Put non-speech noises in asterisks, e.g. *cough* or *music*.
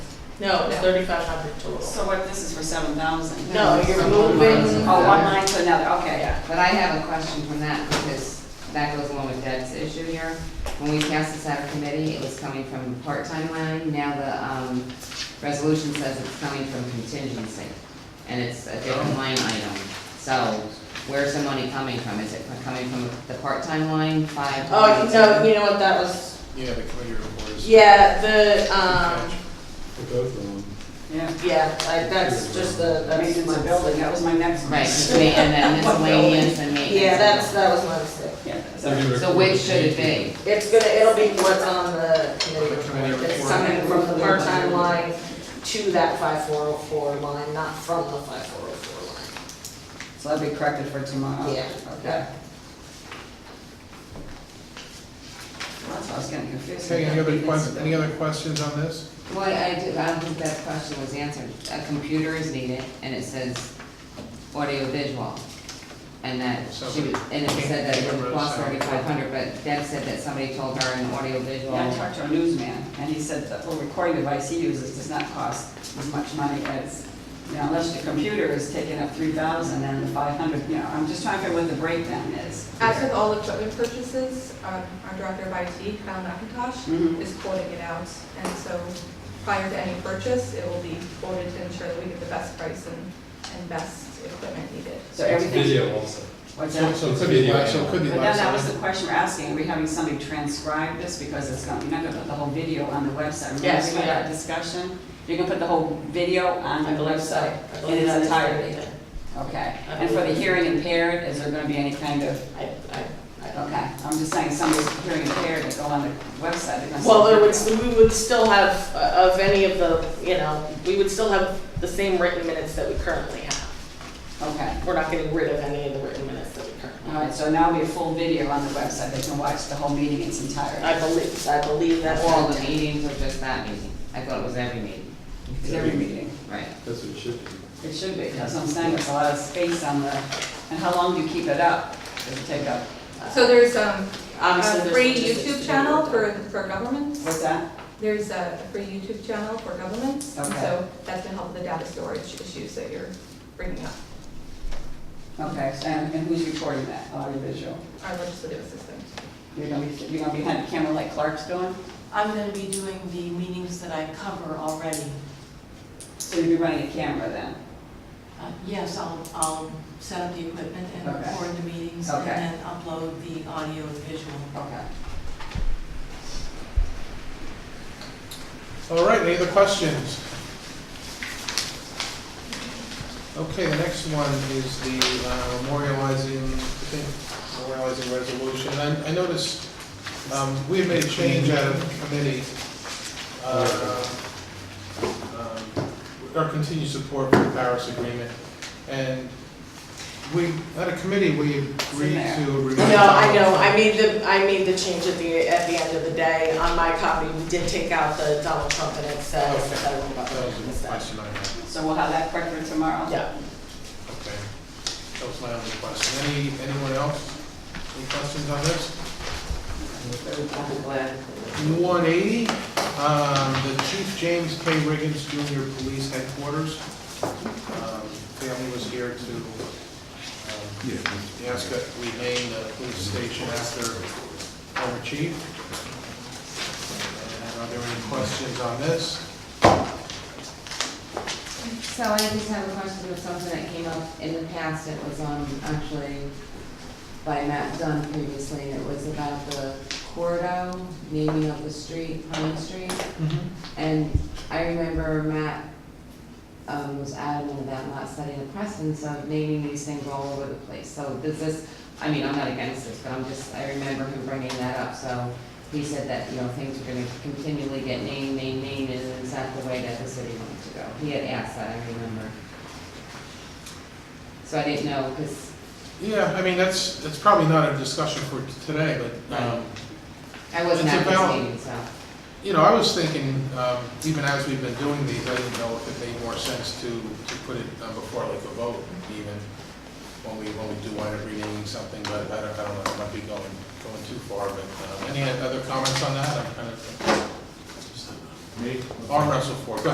No, it's thirty-five hundred total. So what, this is for seven thousand? No, you're moving, Oh, one line to another, okay. yeah, But I have a question from that, because that goes along with Deb's issue here. When we passed this out of committee, it was coming from the part-time line, now the, um, resolution says it's coming from contingency, and it's a different line item. So where's the money coming from? Is it coming from the part-time line, five? oh, no, you know what, that was, Yeah, the committee reports. yeah, the, um, For both of them. Yeah. yeah, like, that's just the, I mean, that's. it's a building, that was my next Right, question. just ma- and *laughs* then miscellaneous and maintenance. Yeah, that's, that was my mistake. Yeah, They're so gonna So which should it be? It's gonna, it'll be what's on the committee report, it's report. coming from the part-time line to that five four oh four line, not from the five four oh four so that'll be corrected for tomorrow. Yeah. Okay. Well, That's what I was getting confused. Okay, any other questions? questions, any other questions on this? Well, I do, I don't think that question was answered. A computer is needed, and it says audio visual. And that So- she, was- and it said that it would cost So- thirty-five hundred, but Deb said that somebody told her an audio visual. Yeah, I talked to a newsman, and he said that the recording device he uses does not cost as much money as, you know, unless your computer is taking up three thousand and the five hundred, you know, I'm just trying to figure what the breakdown is. As with all equipment purchases, um, our director of IT, Kyle Mhm. McIntosh, is quoting it out. And so prior to any purchase, it will be quoted to ensure that we get the best price and, and best equipment needed. So everything, Video also. what's So that? so it could be, live- so it could But be. then live that was session. the question we're asking, are we having somebody transcribe this, because it's not, you're not gonna put the whole video on the website. Remember Yes, we had we are. that Discussion, you're gonna put the whole video on the website line. in its entirety, okay? And for the hearing impaired, is there gonna be any kind of I, I, I don't know. Okay, I'm just saying, somebody's hearing impaired, they go on the website, they're gonna. Well, it would, we would still have, uh, of any of the, you know, we would still have the same written minutes that we currently have. Okay, We're not getting rid of any of the written minutes that we currently all right, so now it'll be a full video on the website, they can watch the whole meeting in its entirety. I believe, I believe that's All the meetings or just that meeting? I thought it was every meeting, It's every meeting, right? That's what it should be. it should be, that's what I'm saying, there's a lot of space on the, and how long do you keep it up? Does it take up, Uh, So there's um, Obviously, a there's free logistics to YouTube be channel worked for, out. for government. what's that? There's a free YouTube channel for government. Okay. So that's to help with the data storage issues that you're bringing up, Okay, and, and who's recording that, audiovisual? our legislative assistant. You're gonna be, you're gonna be behind the camera like Clark's doing? I'm gonna be doing the meetings that I cover already. So you'll be running a camera then? Uh, Yes, I'll, I'll set up the equipment and Okay. record the meetings and Okay. then upload the audio and visual. Okay. All right, any other questions? Okay, the next one is the uh, memorializing, I think, memorializing resolution. I, I noticed, um, we had made a change out of committee. uh, um, Our continued support for the Paris Agreement. And we, at a committee, we agreed there. to. remove- No, I know, I made the, I made the change at the, at the end of the day, on my copy, we did take out the Donald Trump and it says, Okay. I don't know about That was a that. question I had. So we'll have that prepared tomorrow? Yeah, Okay, that was my only question. Any, anyone else? Any questions on this? One eighty, um, the Chief James K. Riggins Junior Police Headquarters. Um, Family was here to, um, ask that we name the police station after former chief. And Are there any questions on this? So I just have a question of something that came up in the past, it was, um, actually by Matt Dunn previously, and it was about the Cordo, naming of the street, Pine Street. And I remember Matt, um, was adamant about not studying the precedence of naming these things all over the place. So does this, I mean, I'm not against this, but I'm just, I remember him bringing that up, so he said that, you know, things are gonna continually get named, named, named, and is that the way that the city wants to go? He had asked that, I remember. So I didn't know, because Yeah, I mean, that's, that's probably not a discussion for today, but, um, I wasn't It's at this about- meeting, so. You know, I was thinking, um, even as we've been doing these, I didn't know if it made more sense to, to put it uh, before like a vote even, when we, when we do wind up renaming something, but I don't, I don't know, I might be going, going too far, but uh, um, any other comments on that? I'm kind of Me? arm wrestle for it. Go